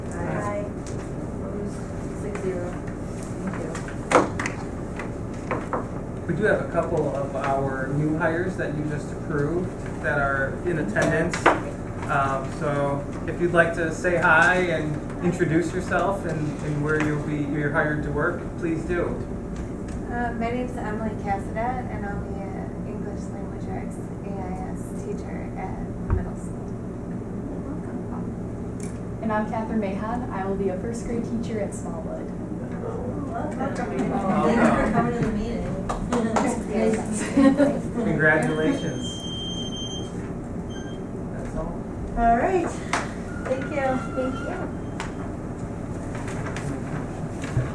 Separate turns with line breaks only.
We do have a couple of our new hires that you just approved that are in attendance. Um, so if you'd like to say hi and introduce yourself and, and where you'll be, you're hired to work, please do.
Uh, my name's Emily Cassadet, and I'll be an English Language Arts AIS teacher at the middle school.
And I'm Catherine Mahan. I will be a first grade teacher at Smallwood.
Welcome.
Welcome.
Thanks for coming to the meeting.
Congratulations. That's all.
All right, thank you.
Thank you.